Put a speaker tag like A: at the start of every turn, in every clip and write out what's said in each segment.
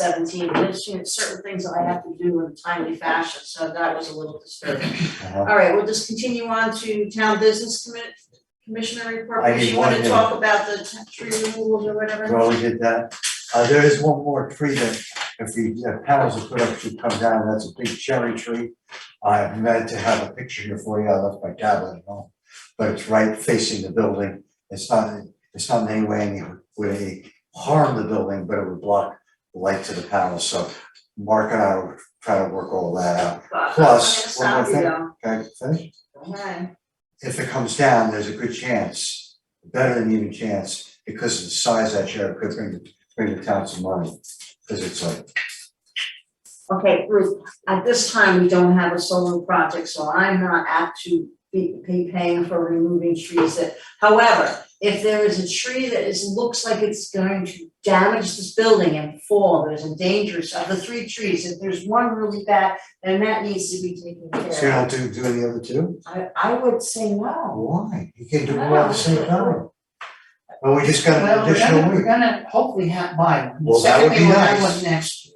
A: seventeen, and it's, you know, certain things that I have to do in a timely fashion, so that was a little disturbing.
B: Uh-huh.
A: All right, we'll just continue on to town business commit, commissioner report,
B: I
A: because
B: did
A: you wanna
B: one, yeah.
A: talk about the t- tree removals or whatever?
B: Well, we did that. Uh, there is one more tree that if the uh, panels are put up, should come down. That's a big cherry tree. I meant to have a picture here for you. I left my tablet at home. But it's right facing the building. It's not, it's not in any way any way harm the building, but it would block the light to the panels. So Mark and I will try to work all that out.
A: But uh, I'm
B: plus,
A: gonna
B: one
A: stop you
B: more
A: though.
B: Can I finish?
A: Okay,
B: if it comes down, there's a good chance, better than even chance, because of the size of that share, it could bring, bring the town some money. Because it's like,
A: okay, Ruth, at this time, we don't have a solar project, so I'm not apt to be, be paying for removing trees that, however, if there is a tree that is, looks like it's going to damage this building and fall, there's a dangerous, of the three trees, if there's one really bad, then that needs to be taken
B: so you
A: care of.
B: don't do, do any other two?
A: I, I would say no.
B: Why? You can do more at the same time. Well, we just got
C: Well,
B: an
C: we're gonna,
B: additional
C: we're
B: week.
C: gonna hopefully have buy one.
B: Well, that would be
C: Certainly we'll have
B: nice.
C: one next year.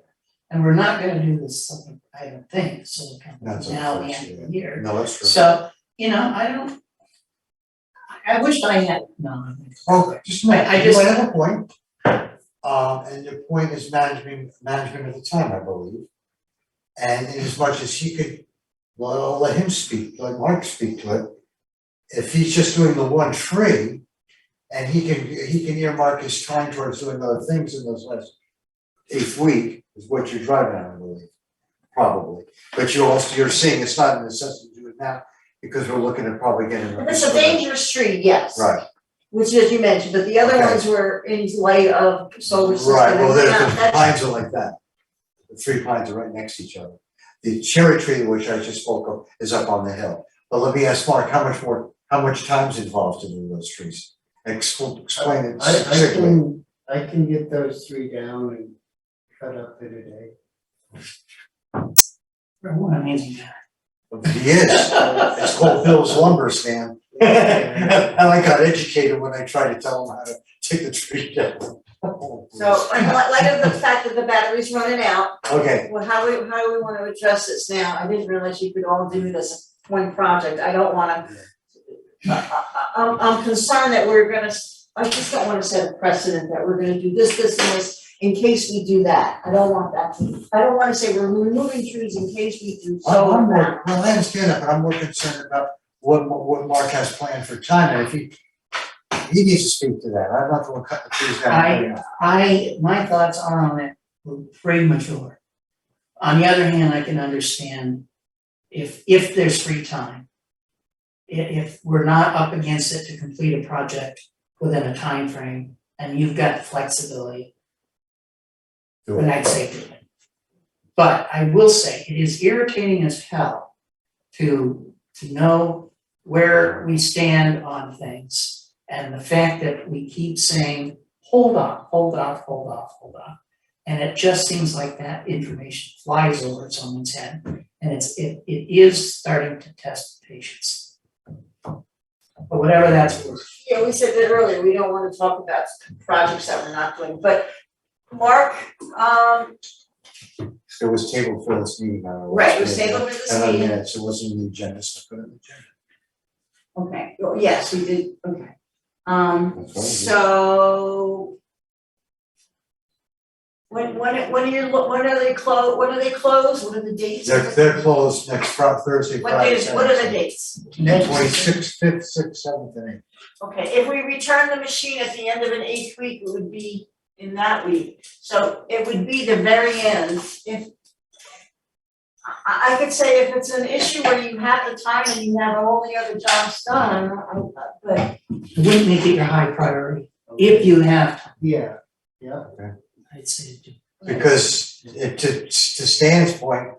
C: And we're not gonna do this, summer, I don't think, so it
B: That's
C: comes now the end of the year.
B: No, that's true.
C: So, you know, I don't. I I wish I had, no,
B: Well, just a minute,
C: I- I
B: you
C: just-
B: might have a point. Um, and your point is management, management of the time, I believe. And in as much as he could, well, I'll let him speak, let Mark speak to it. If he's just doing the one tree, and he can, he can earmark his time towards doing other things in those last eighth week, is what you're driving at, I believe, probably. But you're also, you're seeing it's not a necessity to do it now, because we're looking at probably getting.
A: If It's a dangerous tree, yes.
B: Right.
A: Which as you mentioned, but the other
B: Okay.
A: ones were in light of solar system.
B: Right, well, there's
A: Now,
B: the
A: that's-
B: pines are like that. The three pines are right next to each other. The cherry tree, which I just spoke of, is up on the hill. But let me ask Mark, how much more, how much time's involved in doing those trees? Explain, explain it
D: I I
B: strictly.
D: can, I can get those three down and cut up in a day.
C: for one amazing guy.
B: He is, it's called Bill's lumber stand. And I got educated when I tried to tell him how to take the tree down.
A: So, in li- light of the fact that the battery's running out,
B: Okay,
A: Well, how do we, how do we wanna address this now? I didn't realize you could all do this as one project, I don't wanna. I, I, I'm, I'm concerned that we're gonna, s- I just don't wanna set a precedent that we're gonna do this, this, and this in case we do that. I don't want that, to- I don't wanna say we're removing trees in case we do
B: I'm,
A: so uh,
B: I'm
A: or
B: more,
A: that.
B: well, I understand that, but I'm more concerned about what, what Mark has planned for China, if he, he needs to speak to that, I'm not the one cutting the trees down.
C: I- I, my thoughts are on it were pretty mature. On the other hand, I can understand if, if there's free time. i- If, we're not up against it to complete a project within a time frame, and you've got the flexibility,
B: Do
C: then
B: it.
C: I'd say do it. But I will say, it is irritating as hell to, to know where we stand on things. And the fact that we keep saying, hold off, hold off, hold off, hold off. And it just seems like that information flies over someone's head, and it's, it, it is starting to test patience. But whatever that's worth,
A: Yeah, we said that earlier, we don't wanna talk about projects that we're not doing, but Mark, um,
B: It was tabled for this meeting, I don't know.
A: Right, it was tabled for this
B: And uh, I
A: meeting.
B: minutes, it wasn't in the agenda, so I put it in the agenda.
A: Okay, well, yes, we did, okay. Um,
B: That's right.
A: so. When, when, when are your, when are they clo, when are they closed, what are the dates?
B: They're, they're closed next Fri- Thursday,
A: What
B: Friday,
A: days, what are the
B: Saturday.
A: dates?
B: Twenty-sixth, fifth, sixth, seventh, and eighth.
A: Okay, if we return the machine at the end of an eighth week, it would be in that week, so it would be the very end, if. I, I could say if it's an issue where you have the time and you have all the other jobs done, I, but
C: it wouldn't make it your high priority, if you have, time,
D: Yeah, yeah.
C: I'd say do.
B: Because it, to, to Stan's point,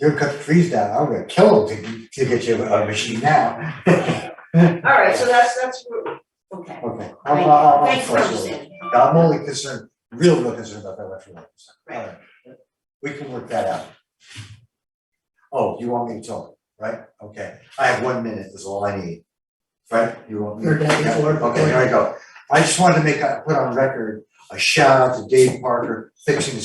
B: you're cutting trees down, I'm gonna kill them to, to get you a a machine now. Okay,
A: All right, so that's, that's, what- okay.
B: I'm, I'm,
A: Thank you.
B: I'm
A: Thanks for
B: flexible.
A: understanding.
B: I'm only concerned, real real concerned about that electric light.
A: Right.
B: Alright, We can work that out. Oh, you want me to talk, right? Okay, I have one minute is all I need. Right, you want me?
C: You're done before-
B: Okay, here I go. I just wanted to make, a- put on record, a shout out to Dave Parker fixing the